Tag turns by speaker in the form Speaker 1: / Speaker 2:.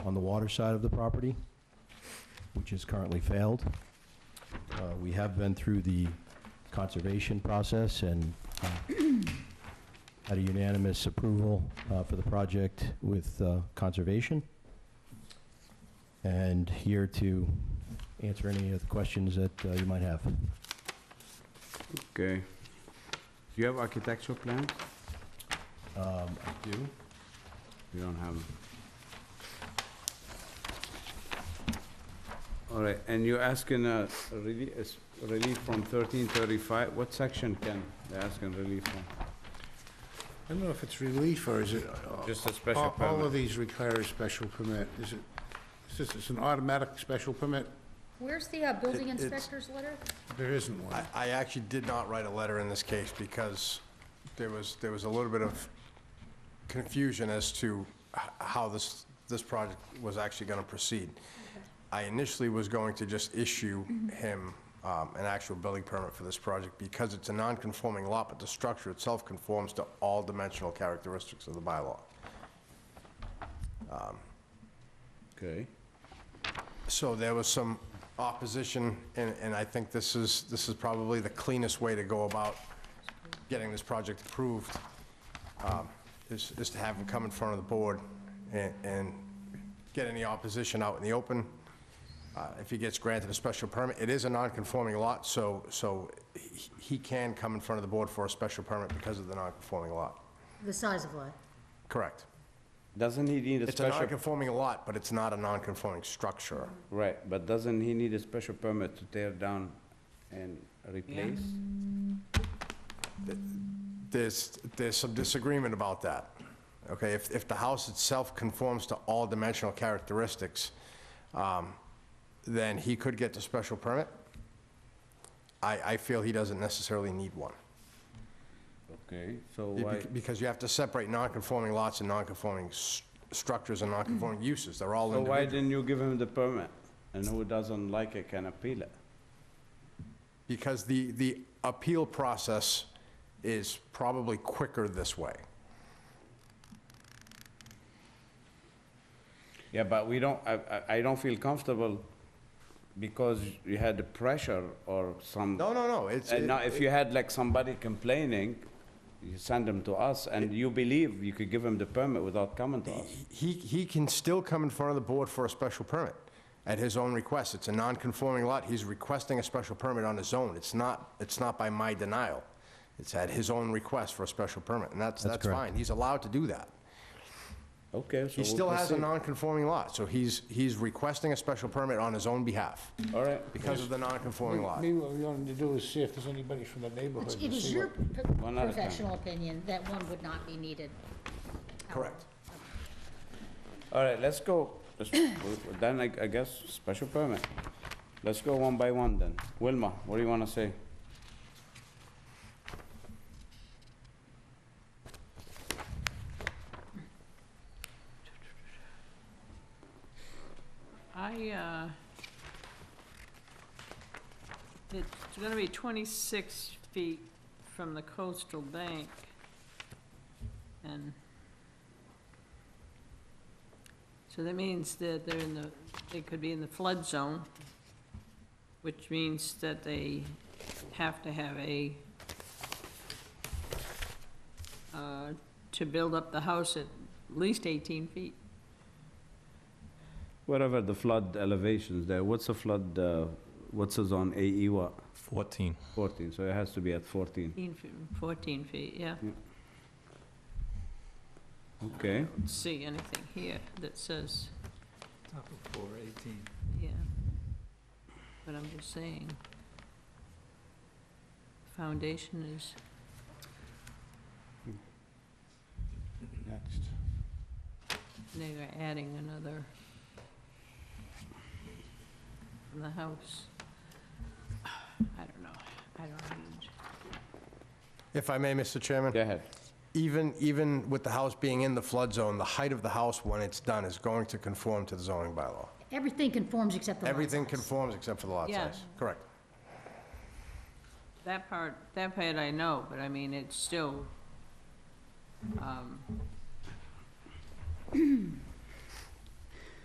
Speaker 1: on the water side of the property, which is currently failed. Uh, We have been through the conservation process and uh, had a unanimous approval uh, for the project with uh, conservation. And here to answer any of the questions that uh, you might have.
Speaker 2: Okay. Do you have architectural plans?
Speaker 1: Um, I do.
Speaker 2: You don't have them. All right, and you're asking a relie- a s- relief from 1335, what section, Ken? They're asking relief from?
Speaker 3: I don't know if it's relief or is it... uh,
Speaker 2: Just a special
Speaker 3: all- All
Speaker 2: permit.
Speaker 3: of these require a special permit. Is it, is this, it's an automatic special permit?
Speaker 4: Where's the uh, building
Speaker 5: It- it's-
Speaker 4: inspector's letter?
Speaker 3: There isn't one.
Speaker 5: I- I actually did not write a letter in this case because there was, there was a little bit of confusion as to h- how this, this project was actually going to proceed. I initially was going to just issue him um, an actual building permit for this project because it's a non-conforming lot, but the structure itself conforms to all dimensional characteristics of the bylaw.
Speaker 2: Okay.
Speaker 5: So there was some opposition, and, and I think this is, this is probably the cleanest way to go about getting this project approved, um, is, is to have them come in front of the board and, and get any opposition out in the open. Uh, If he gets granted a special permit, it is a non-conforming lot, so, so he- he can come in front of the board for a special permit because of the non-conforming lot.
Speaker 4: The size of lot.
Speaker 5: Correct.
Speaker 2: Doesn't he need a
Speaker 5: It's a
Speaker 2: special?
Speaker 5: non-conforming lot, but it's not a non-conforming structure.
Speaker 2: Right, but doesn't he need a special permit to tear down and replace?
Speaker 5: There's, there's some disagreement about that, okay? If, if the house itself conforms to all dimensional characteristics, um, then he could get the special permit. I, I feel he doesn't necessarily need one.
Speaker 2: Okay, so
Speaker 5: You-
Speaker 2: why?
Speaker 5: Because you have to separate non-conforming lots and non-conforming s- structures and non-conforming uses, they're all
Speaker 2: Mm-hmm. So why
Speaker 5: individual.
Speaker 2: didn't you give him the permit? And who doesn't like it can appeal it?
Speaker 5: Because the, the appeal process is probably quicker this way.
Speaker 2: Yeah, but we don't, I, I, I don't feel comfortable because you had the pressure or some.
Speaker 5: No, no, no, it's.
Speaker 2: And now, if you had like somebody complaining, you send them to us, and you believe you could give him the permit without coming to us.
Speaker 5: He, he can still come in front of the board for a special permit at his own request. It's a non-conforming lot. He's requesting a special permit on his own. It's not, it's not by my denial. It's at his own request for a special permit, and that's,
Speaker 1: That's
Speaker 5: that's
Speaker 1: correct.
Speaker 5: fine. He's allowed to do that.
Speaker 2: Okay, so
Speaker 5: He
Speaker 2: we'll
Speaker 5: still has a
Speaker 2: proceed.
Speaker 5: non-conforming lot, so he's, he's requesting a special permit on his own behalf
Speaker 2: All right,
Speaker 5: because of the non-conforming lot.
Speaker 3: Maybe what we wanted to do is see if there's anybody from the neighborhood.
Speaker 4: It's-
Speaker 3: to
Speaker 4: It is
Speaker 3: see
Speaker 4: your
Speaker 3: what-
Speaker 4: p-
Speaker 2: One at a time.
Speaker 4: professional opinion that one would not be needed.
Speaker 5: Correct.
Speaker 2: all right, let's go. Let's- we- we- Then I, I guess, special permit. Let's go one by one then. Wilma, what do you wanna say?
Speaker 6: I, uh, it's gonna be twenty-six feet from the coastal bank, and so that means that they're in the, they could be in the flood zone, which means that they have to have a, uh, to build up the house at least eighteen feet.
Speaker 2: Whatever the flood elevations there, what's the flood, uh, what's the zone, AE what?
Speaker 7: 14.
Speaker 2: 14, so it has to be at 14.
Speaker 6: 14 feet, 14 feet, yeah.
Speaker 2: Okay,
Speaker 6: Don't See anything here that says,
Speaker 7: Top of 418.
Speaker 6: yeah. But I'm just saying, foundation is,
Speaker 2: next.
Speaker 6: they are adding another from the house. I don't know, I don't need,
Speaker 5: If I may, Mr. Chairman?
Speaker 2: Go ahead.
Speaker 5: Even, even with the house being in the flood zone, the height of the house when it's done is going to conform to the zoning bylaw.
Speaker 4: Everything conforms except the lot
Speaker 5: Everything
Speaker 4: size.
Speaker 5: conforms except for the lot
Speaker 6: Yeah.
Speaker 5: size. Correct.
Speaker 6: that part, that part I know, but I mean, it's still, um,